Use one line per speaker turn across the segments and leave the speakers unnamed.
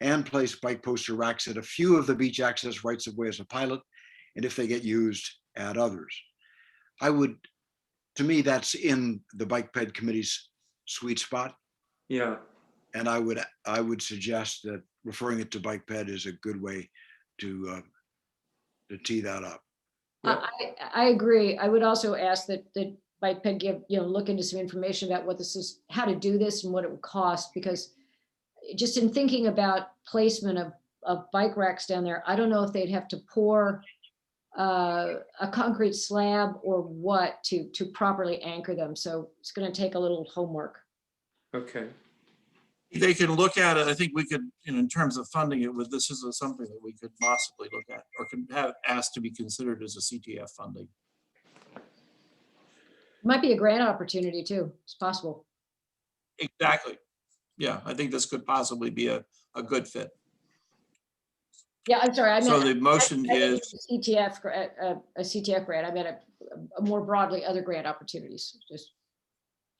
and place bike poster racks at a few of the beach access rights of way as a pilot, and if they get used, at others. I would, to me, that's in the Bike Ped Committee's sweet spot,
yeah,
and I would, I would suggest that referring it to Bike Ped is a good way to, uh, to tee that up.
Yeah.
I, I I agree. I would also ask that, that Bike Ped give, you know, look into some information about what this is, how to do this and what it would cost, because just in thinking about placement of, of bike racks down there, I don't know if they'd have to pour uh, a concrete slab or what to, to properly anchor them. So it's going to take a little homework.
okay,
They could look at it. I think we could, you know, in terms of funding it, with this is something that we could possibly look at or can have asked to be considered as a CTF funding.
Might be a grant opportunity too. It's possible.
Exactly. Yeah, I think this could possibly be a, a good fit.
Yeah, I'm sorry. I
So
meant-
the motion
I think
is,
it's a CTF, gra- a, a CTF grant, I meant a, a more broadly other grant opportunities, just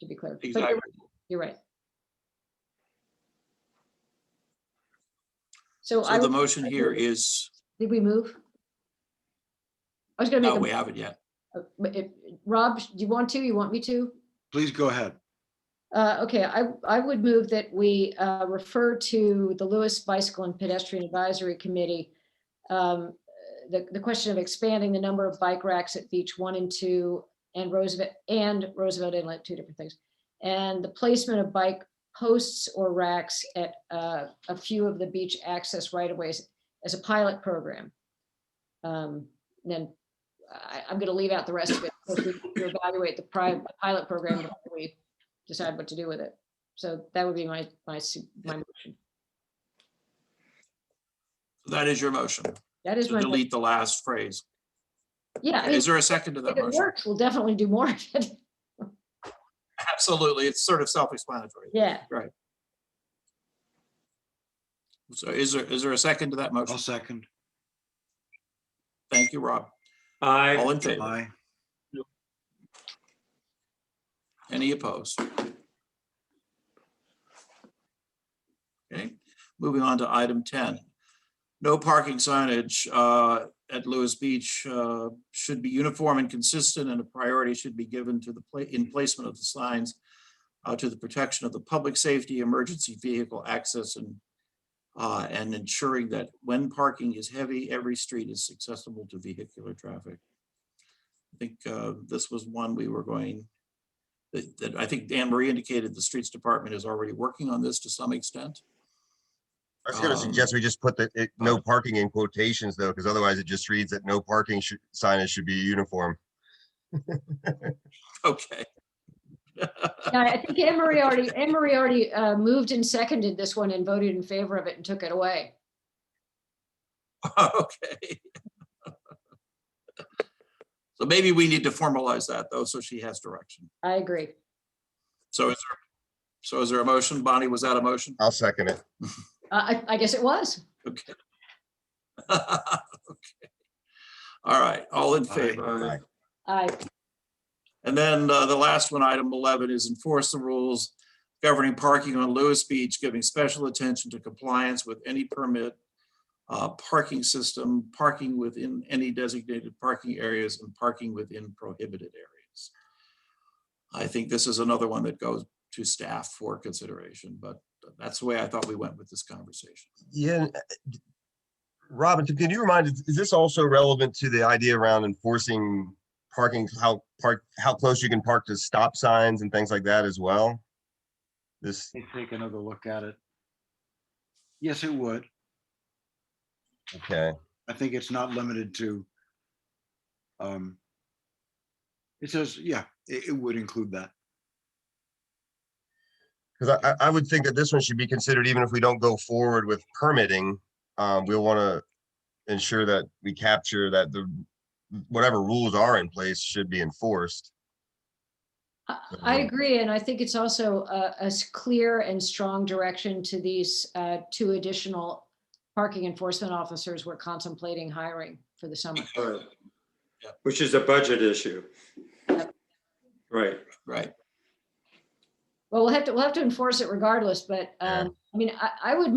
to be clear. But you're
exactly,
right, You're right. So I,
so the
would-
motion here is,
did we move? I was gonna
no, we
make,
haven't yet.
a- uh, but if- Rob, do you want to, you want me to?
Please go ahead.
Uh, okay, I, I would move that we, uh, refer to the Lewis Bicycle and Pedestrian Advisory Committee. Um, the, the question of expanding the number of bike racks at Beach One and Two and Roosevelt, and Roosevelt Inlet, two different things. And the placement of bike posts or racks at, uh, a few of the beach access right-of-ways as a pilot program. Um, then I, I'm gonna leave out the rest of it. because we need to Evaluate the private pilot program before we decide what to do with it. So that would be my, my, su- my, motion.
That is your motion,
that is
to
my, mo-
delete the last phrase.
yeah, I mean,
Is there a second to
if
that
it
motion?
works, we'll definitely do more of it.
Absolutely, it's sort of self-explanatory.
Yeah,
So is there, is there a second to that motion?
I'll second.
Thank you, Rob. All
I,
in favor?
Aye.
Any opposed? Okay, moving on to item ten. No parking signage uh, at Lewis Beach uh, should be uniform and consistent, and a priority should be given to the pla- in placement of the signs uh, to the protection of the public safety, emergency vehicle access, and uh, and ensuring that when parking is heavy, every street is accessible to vehicular traffic. I think uh, this was one we were going that, that I think Dan Marie indicated the streets department is already working on this to some extent.
I was gonna
Um,
suggest we just put the, it- no parking in quotations though, because otherwise it just reads that no parking should, signage should be uniform.
Okay.
Yeah, I think Anne Marie already, Anne Marie already uh, moved and seconded this one and voted in favor of it and took it away.
Okay. So maybe we need to formalize that though, so she has direction.
I agree.
So is there, so is there a motion? Bonnie, was that a motion?
I'll second it.
Uh, I, I guess it was.
Okay. Okay. All right, all in
Aye.
favor?
I,
I,
And then uh, the last one, item 11, is enforce the rules governing parking on Lewis Beach, giving special attention to compliance with any permit, uh, parking system, parking within any designated parking areas, and parking within prohibited areas. I think this is another one that goes to staff for consideration, but that's the way I thought we went with this conversation.
Yeah. and, uh, d- Robin, can you remind, us? is this also relevant to the idea around enforcing parking, how park, how close you can park to stop signs and things like that as well? This,
Let me Take another look at it. Yes, it would.
okay.
I think it's not limited to. um It says, yeah, it, it would include that.
Because I, I- I would think that this one should be considered, even if we don't go forward with permitting, um, we'll want to ensure that we capture that the, whatever rules are in place should be enforced.
I I
Uh-huh.
agree, and I think it's also a, a s- clear and strong direction to these uh, two additional parking enforcement officers we're contemplating hiring for the summer.
alright.
Yeah.
Which is a budget issue.
Yep.
Right,
Right.
Well, we'll have to, we'll have to enforce it regardless, but,
Yeah.
um, I mean, I, I would